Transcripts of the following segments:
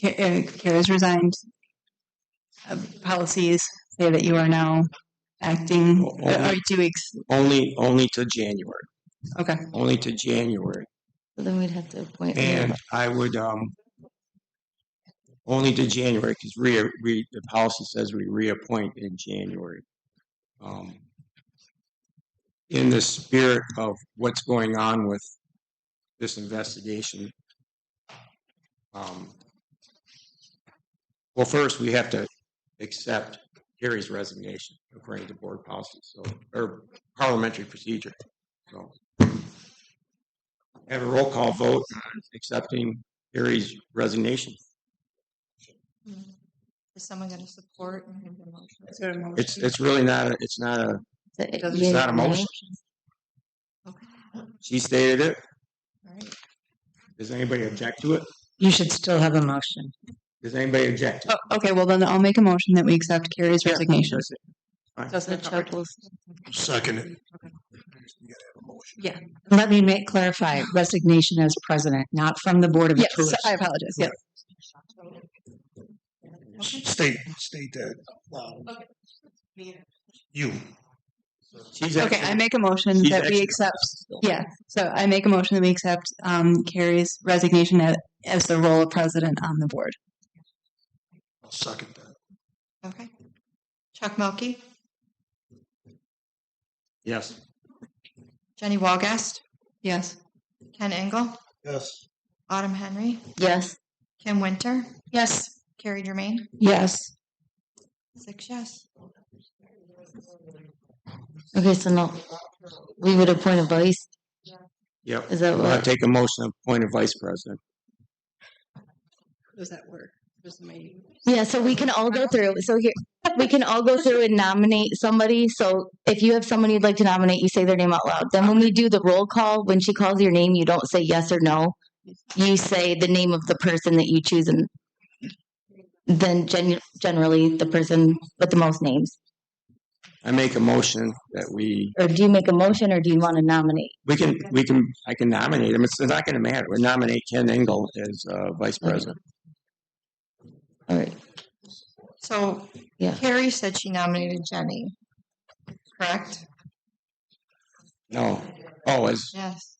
Ca- uh, Kara's resigned. Uh, Policies say that you are now acting, Oh, uh, oh. or two weeks. Only, only to January, Okay. only to January. So Then we'd have to appoint. And I would, um, only to January, because re, re, the policy says we reappoint in January. Um, In the spirit of what's going on with this investigation. um, Well, first, we have to accept Gary's resignation according to board policy, so, or parliamentary procedure. So have a roll call vote on accepting Gary's resignation. Is someone going to support? and give the motion? It's, it's really not, a it's not a, Is it- Doesn't- yeah, not a no? motion. Okay, she stated it. all right. Does anybody object to it? You should still have a motion. Does anybody object? to it? Oh, Okay, well then I'll make a motion that we accept Carrie's resignation. Doesn't Chuck will? Second it. Let me make, clarify resignation as president, not from the Board of Yes, Appeals. I apologize, yes. State, state that. loud. You. She's Okay, I actually, make a motion She's that we actually- accept, yeah, so I make a motion that we accept, um, Carrie's resignation as, as the role of president on the board. I'll second that. Okay. Chuck Melkey, yes, Jenny Walgast, Yes. Ken Engel, Yes. Autumn Henry, Yes. Kim Winter. Yes. Carrie Germain, Yes. six yes. Okay, so now we would appoint a vice. yep. Is that Well, I take a motion to appoint a vice president. Does that work? Does my- Yeah, so we can all go through. So here, we can all go through and nominate somebody. So if you have someone you'd like to nominate, you say their name out loud. Then when we do the roll call, when she calls your name, you don't say yes or no. You say the name of the person that you choose, and then gen- generally the person with the most names. I make a motion that we, Or do you make a motion, or do you want to nominate? we can, we can, I can nominate him. It's not going to matter. We nominate Ken Engel as, uh, vice president. All right. So Yeah. Carrie said she nominated Jenny. Correct? No, oh, as, Yes.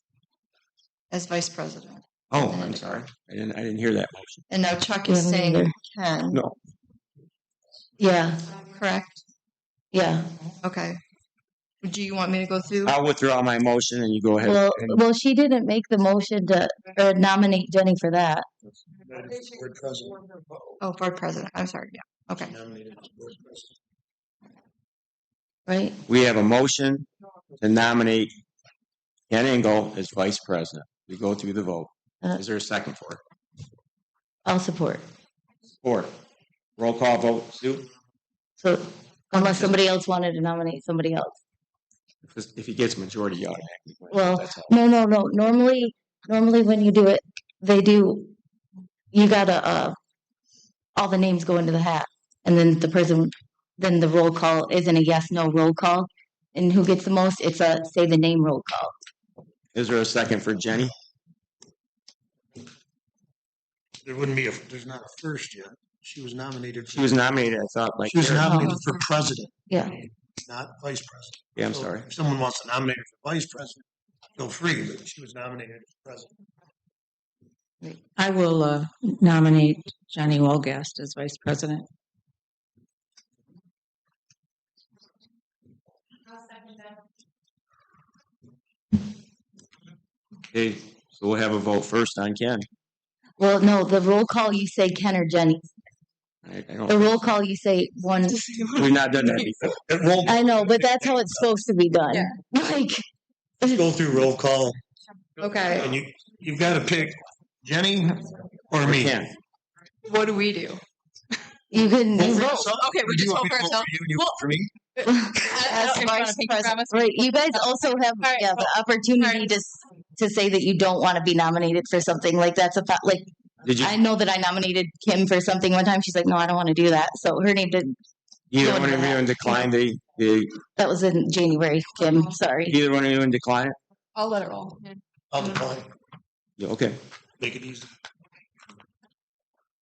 As vice president. oh, I'm sorry. I didn't, I didn't hear that motion. And now Chuck is Yeah, me saying neither. Ken, No, Yeah. correct? Yeah. Okay. Do you want me to go through? I'll withdraw my motion and you go ahead. Well, and- well, she didn't make the motion to or nominate Jenny for that. Board president. Oh, board president. I'm sorry. Yeah. Okay. Nominated as board president. Right? We have a motion to nominate Ken Engel as vice president. We go through the vote. Uh-huh. Is there a second for it? I'll support. Four. Roll call vote, Sue, So unless somebody else wanted to nominate somebody else. Because if he gets majority, you automatically. win. Well, That's all. No, no, no. Normally, normally when you do it, they do. You gotta uh, all the names go into the hat, and then the person, then the roll call isn't a yes no roll call, and who gets the most? It's a say the name roll call. Is there a second for Jenny? There wouldn't be a, there's not a first yet. She was nominated. She was nominated, I thought, like, She was Eric. nominated for president, Yeah, not vice president. yeah, I'm So sorry. If someone wants to nominate her for vice president, feel free, but she was nominated as president. I will uh, nominate Johnny Walgast as vice president. Okay, so we'll have a vote first on Ken. Well, no, the roll call you say Ken or Jenny. I, I The don't, roll call you say one. we've not done that before. At roll, I know, but that's how it's supposed to be done. Yeah. Like, go through roll call Okay. and you, you've got to pick Jenny or me. Ken, What do we do? you can Vote you for vote. yourself, Okay, we or do just you want vote me for to ourselves. you and you vote for me? As As vice president, right? You guys also All have right, yeah, the all opportunity right. to s- to say that you don't want to be nominated for something like that's a fa- like did you, I know that I nominated Kim for something one time. She's like, no, I don't want to do that. So her name didn't. either don't one of do you that. in decline, the, the, That was in January. Kim, sorry. either one of you in decline? I'll let it roll. I'll decline. Yeah, Okay, Make it easy.